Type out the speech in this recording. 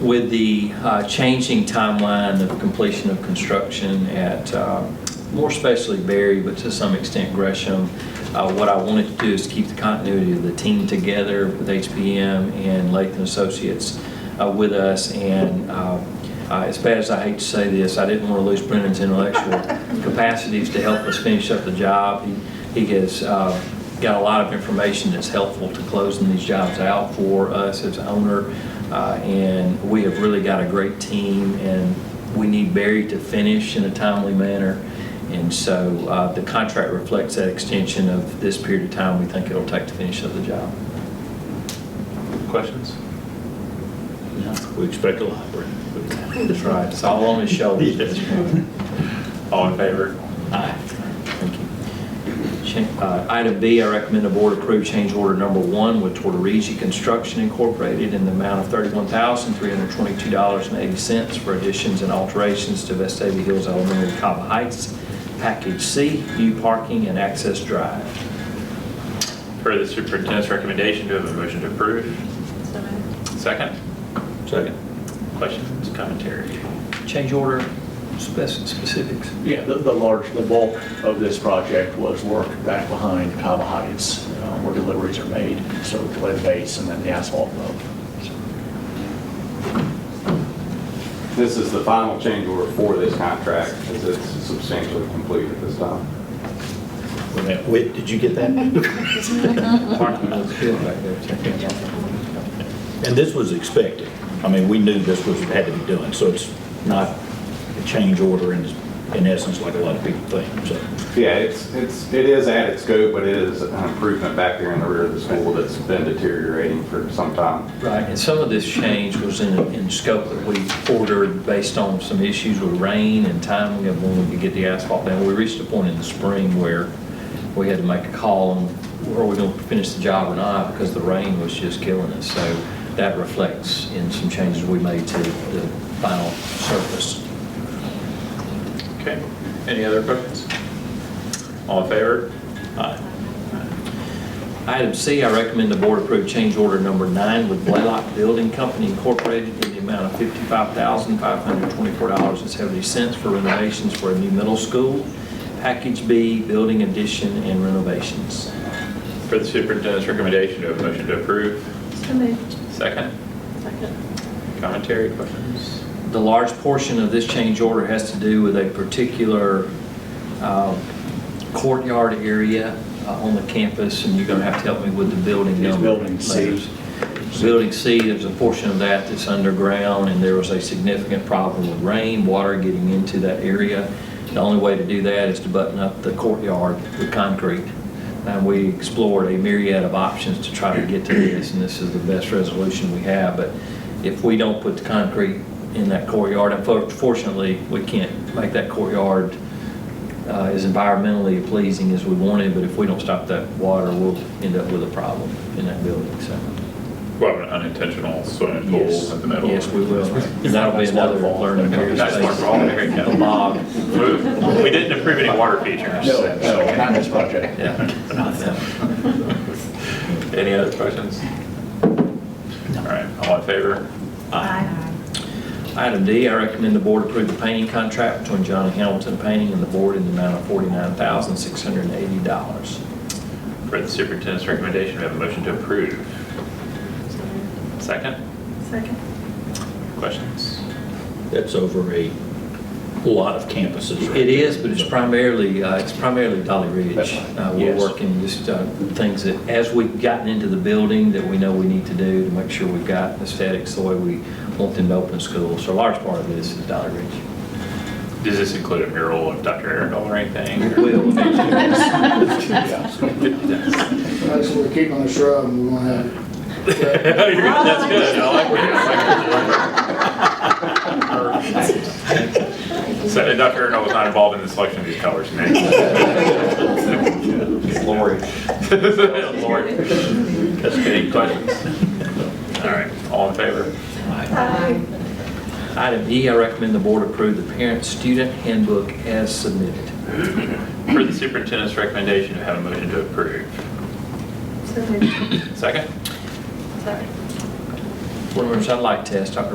with the uh, changing timeline of completion of construction at, um, more especially Berry, but to some extent Gresham, uh, what I wanted to do is keep the continuity of the team together with HPM and Latham Associates uh, with us. And uh, uh, as bad as I hate to say this, I didn't want to lose Brennan's intellectual capacities to help us finish up the job. He he has uh, got a lot of information that's helpful to closing these jobs out for us as owner. Uh, And we have really got a great team, and we need Barry to finish in a timely manner. And so uh, the contract reflects that extension of this period of time we think it'll take to finish up the job. Questions? We expect a lot. We're- That's right. It's all on his shoulders. Yes. All in favor? Aye. Thank you. Cha- uh, Item B, I recommend the board approve change order number one with Tortoregi Construction Incorporated in the amount of $31,322.80 for additions and alterations to Vestavia Hills Elementary, Cobb Heights, Package C, new parking and access drive. Per the superintendent's recommendation, do I have a motion to approve? So moved. Second? Second. Questions, commentary? Change order spec- specifics. Yeah, the, the large, the bulk of this project was work back behind Cava Heights, uh, where deliveries are made, so we lay the base and then the asphalt load. This is the final change order for this contract, as it's substantially complete at this time. Wait, did you get that? And Parking lot. Field back there, check it out. this was expected. I mean, we knew this was, had to be done, so it's not a change order in, in essence, like a lot of people think, so. Yeah, it's, it's, it is at its scope, but it is an improvement back there in the rear of the school that's been deteriorating for some time. Right, and some of this change was in, in scope that we ordered based on some issues with rain and timing of when we could get the asphalt down. We reached a point in the spring where we had to make a call on, are we gonna finish the job or not, because the rain was just killing us. So that reflects in some changes we made to the final surface. Okay. Any other questions? All in favor? Aye. Item C, I recommend the board approve change order number nine with Blaylock Building Company Incorporated in the amount of $55,524.70 for renovations for a new middle school, Package B, building addition and renovations. Per the superintendent's recommendation, do I have a motion to approve? So moved. Second? Second. Commentary, questions? The large portion of this change order has to do with a particular uh, courtyard area uh, on the campus, and you're going to have to help me with the building It's number. building C. letters. Building C, there's a portion of that that's underground, and there was a significant problem with rain, water getting into that area. The only way to do that is to button up the courtyard with concrete. And we explored a myriad of options to try to get to this, and this is the best resolution we have. But if we don't put the concrete in that courtyard, unfortunately, we can't make that courtyard uh, as environmentally pleasing as we wanted, but if we don't stop that water, we'll end up with a problem in that building, so. Well, an unintentional swimming pool in the middle. Yes, we will. That'll be another learning Okay, That's experience. wonderful. Very good. The mob, Move. We didn't approve any water features. No, no, not this project. yeah, not them. Any other questions? All right, all in favor? Aye. Item D, I recommend the board approve the painting contract between Johnny Hamilton Painting and the board in the amount of $49,680. For the superintendent's recommendation, we have a motion to approve. So moved. Second, Second. questions? That's over a lot of campuses. right? It is, but it's primarily, uh, it's primarily Dolly That's Ridge. right. Uh, We're Yes. working just uh, things that, as we've gotten into the building, that we know we need to do to make sure we've got aesthetics the way we want them to open schools. So a large part of this is Dolly Ridge. Does this include a mural of Dr. Arundel or anything? It will. That's what we're keeping the shrub, and we won't have it. That's good, I like where you're going. So, and Dr. Arundel was not involved in the selection of these colors, man. Lori. Lord. That's good. Any questions? All right, all in favor? Aye. Item E, I recommend the board approve the parent-student handbook as submitted. For the superintendent's recommendation, do I have a motion to approve? So moved. Second? Second. Board members, I'd like to ask Dr.